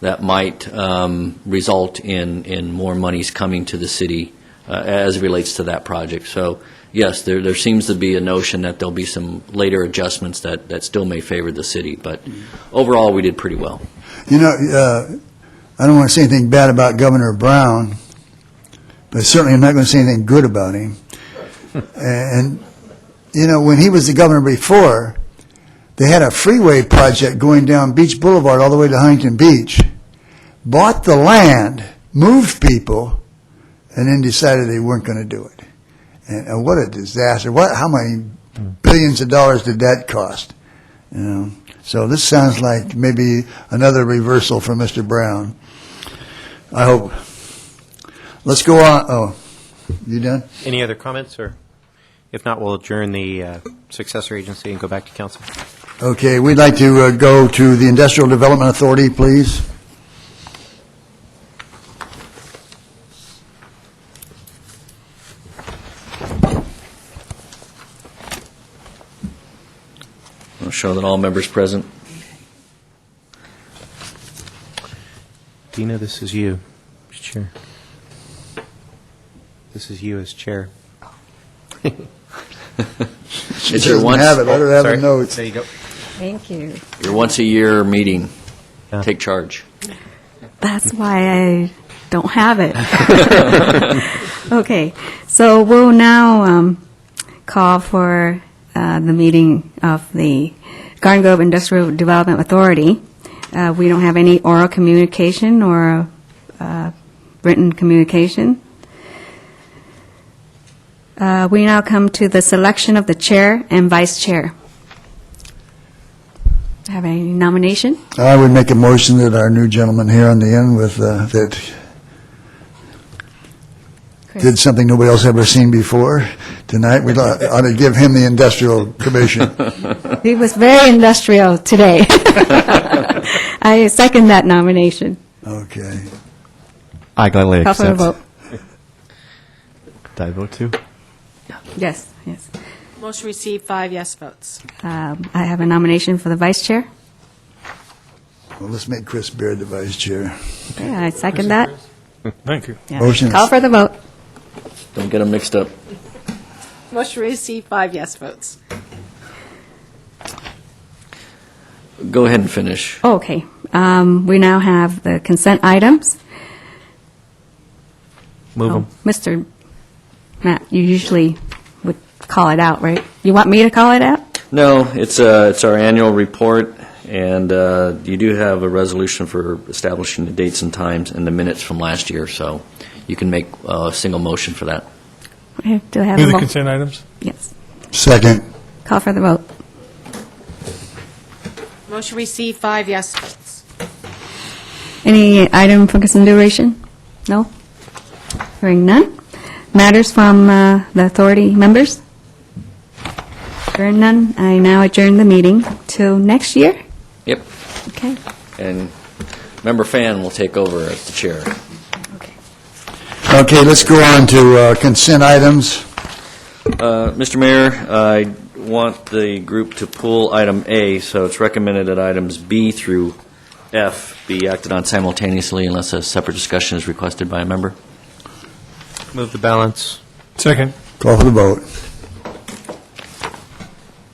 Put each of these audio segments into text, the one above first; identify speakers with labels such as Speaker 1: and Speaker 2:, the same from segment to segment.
Speaker 1: that might um, result in, in more monies coming to the city uh, as it relates to that project. So, yes, there, there seems to be a notion that there'll be some later adjustments that, that still may favor the city, but overall, we did pretty well.
Speaker 2: You know, uh, I don't want to say anything bad about Governor Brown, but certainly I'm not going to say anything good about him. And, you know, when he was the governor before, they had a freeway project going down Beach Boulevard all the way to Huntington Beach, bought the land, moved people, and then decided they weren't going to do it. And, and what a disaster. What, how many billions of dollars did that cost? You know? So this sounds like maybe another reversal for Mr. Brown. I hope. Let's go on, oh, you done?
Speaker 3: Any other comments, or if not, we'll adjourn the uh, successor agency and go back to council.
Speaker 2: Okay, we'd like to uh, go to the Industrial Development Authority, please.
Speaker 1: I'll show that all members present.
Speaker 3: Dina, this is you, as chair. This is you as chair.
Speaker 1: It's your
Speaker 2: She doesn't have it,
Speaker 1: once,
Speaker 2: let her have the
Speaker 3: Sorry.
Speaker 2: notes.
Speaker 3: There you go.
Speaker 4: Thank you.
Speaker 1: your once-a-year meeting.
Speaker 3: Yeah.
Speaker 1: Take charge.
Speaker 4: That's why I don't have it. Okay, so we'll now um, call for uh, the meeting of the Garden Grove Industrial Development Authority. Uh, We don't have any oral communication or uh, written communication. Uh, We now come to the selection of the chair and vice chair. Have any nomination?
Speaker 2: I would make a motion that our new gentleman here on the end with, uh, that did something nobody else ever seen before tonight, we ought ought to give him the Industrial Commission.
Speaker 4: He was very industrial today. I second that nomination.
Speaker 2: Okay.
Speaker 5: I gladly
Speaker 4: Call for a
Speaker 5: accept.
Speaker 4: vote.
Speaker 5: Did I vote too?
Speaker 4: Yes, yes.
Speaker 6: Motion received, five yes votes.
Speaker 4: Um, I have a nomination for the vice chair.
Speaker 2: Well, let's make Chris Beard the vice chair.
Speaker 4: Yeah, I second that.
Speaker 7: Thank you.
Speaker 4: Yeah.
Speaker 2: Motion is-
Speaker 4: Call for the vote.
Speaker 1: Don't get them mixed up.
Speaker 6: Motion received, five yes votes.
Speaker 1: Go ahead and finish.
Speaker 4: Oh, Okay. Um, We now have the consent items.
Speaker 3: Move
Speaker 4: Oh,
Speaker 3: them.
Speaker 4: Mr. Matt, you usually would call it out, right? You want me to call it out?
Speaker 1: No, it's, uh, it's our annual report, and uh, you do have a resolution for establishing the dates and times and the minutes from last year, so you can make uh, a single motion for that.
Speaker 4: Okay, Do I have
Speaker 7: Move
Speaker 4: a
Speaker 7: the
Speaker 4: vote?
Speaker 7: consent items.
Speaker 4: Yes.
Speaker 2: Second.
Speaker 4: Call for the vote.
Speaker 6: Motion received, five yes votes.
Speaker 4: Any item for consideration? No? Hearing none. Matters from uh, the authority members? Hearing none, I now adjourn the meeting till next year?
Speaker 1: Yep.
Speaker 4: Okay,
Speaker 1: And Member Fan will take over as the chair.
Speaker 4: okay.
Speaker 2: Okay, let's go on to uh, consent items.
Speaker 1: Uh, Mr. Mayor, I want the group to pull item A, so it's recommended that items B through F be acted on simultaneously unless a separate discussion is requested by a member.
Speaker 3: Move the balance.
Speaker 7: Second.
Speaker 2: Call for the vote.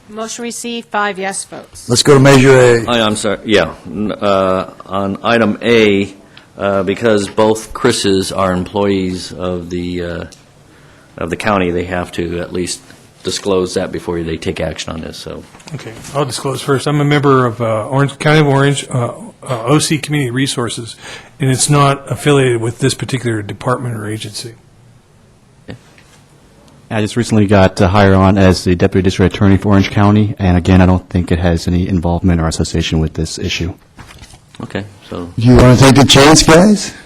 Speaker 6: Motion received, five yes votes.
Speaker 2: Let's go to Measure A.
Speaker 1: I- I'm sorry, Oh, yeah. N- uh, On item A, uh, because both Chris's are employees of the, uh, of the county, they have to at least disclose that before they take action on this, so.
Speaker 7: Okay, I'll disclose first. I'm a member of uh, Orange, County of Orange, uh, uh, OC Community Resources, and it's not affiliated with this particular department or agency.
Speaker 5: I just recently got uh, hired on as the deputy district attorney for Orange County, and again, I don't think it has any involvement or association with this issue.
Speaker 1: Okay, so,
Speaker 2: You want to take the chance, guys?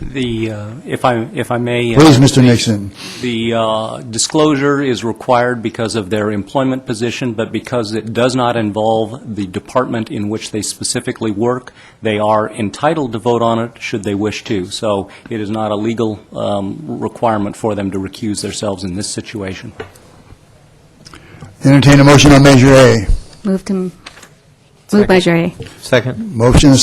Speaker 8: The, uh, if I, if I may. uh,
Speaker 2: Please, Mr. Nixon.
Speaker 8: The uh, disclosure is required because of their employment position, but because it does not involve the department in which they specifically work, they are entitled to vote on it should they wish to. So it is not a legal um, requirement for them to recuse themselves in this situation.
Speaker 2: Entertain a motion on Measure A.
Speaker 4: Move to, move by Jerry.
Speaker 3: Second.
Speaker 2: Motion is